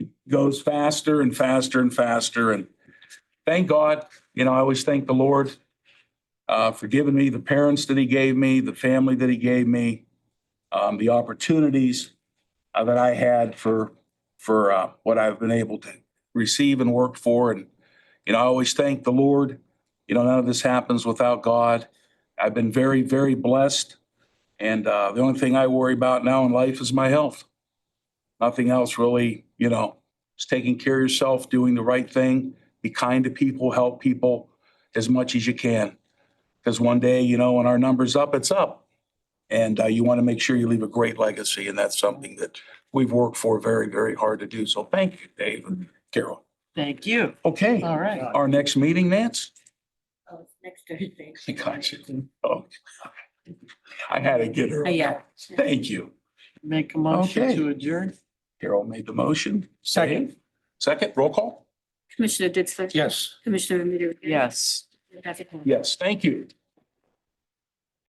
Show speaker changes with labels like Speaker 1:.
Speaker 1: goes faster and faster and faster. And thank God, you know, I always thank the Lord uh, for giving me the parents that he gave me, the family that he gave me, um, the opportunities uh, that I had for, for, uh, what I've been able to receive and work for. And, you know, I always thank the Lord. You know, none of this happens without God. I've been very, very blessed. And, uh, the only thing I worry about now in life is my health. Nothing else really, you know, it's taking care of yourself, doing the right thing, be kind to people, help people as much as you can. Because one day, you know, when our number's up, it's up. And uh, you want to make sure you leave a great legacy, and that's something that we've worked for very, very hard to do. So thank you, Dave and Carol.
Speaker 2: Thank you.
Speaker 1: Okay,
Speaker 2: All right.
Speaker 1: our next meeting, Nance?
Speaker 3: Oh, it's next Thursday.
Speaker 1: Gotcha. Oh, I had to get her.
Speaker 3: Yeah.
Speaker 1: Thank you.
Speaker 2: Make a motion
Speaker 1: Okay.
Speaker 2: to adjourn.
Speaker 1: Carol made the motion. Second. Second, roll call?
Speaker 3: Commissioner Ditzler?
Speaker 1: Yes.
Speaker 3: Commissioner Remedy?
Speaker 2: Yes.
Speaker 3: Yes.
Speaker 1: Yes, thank you.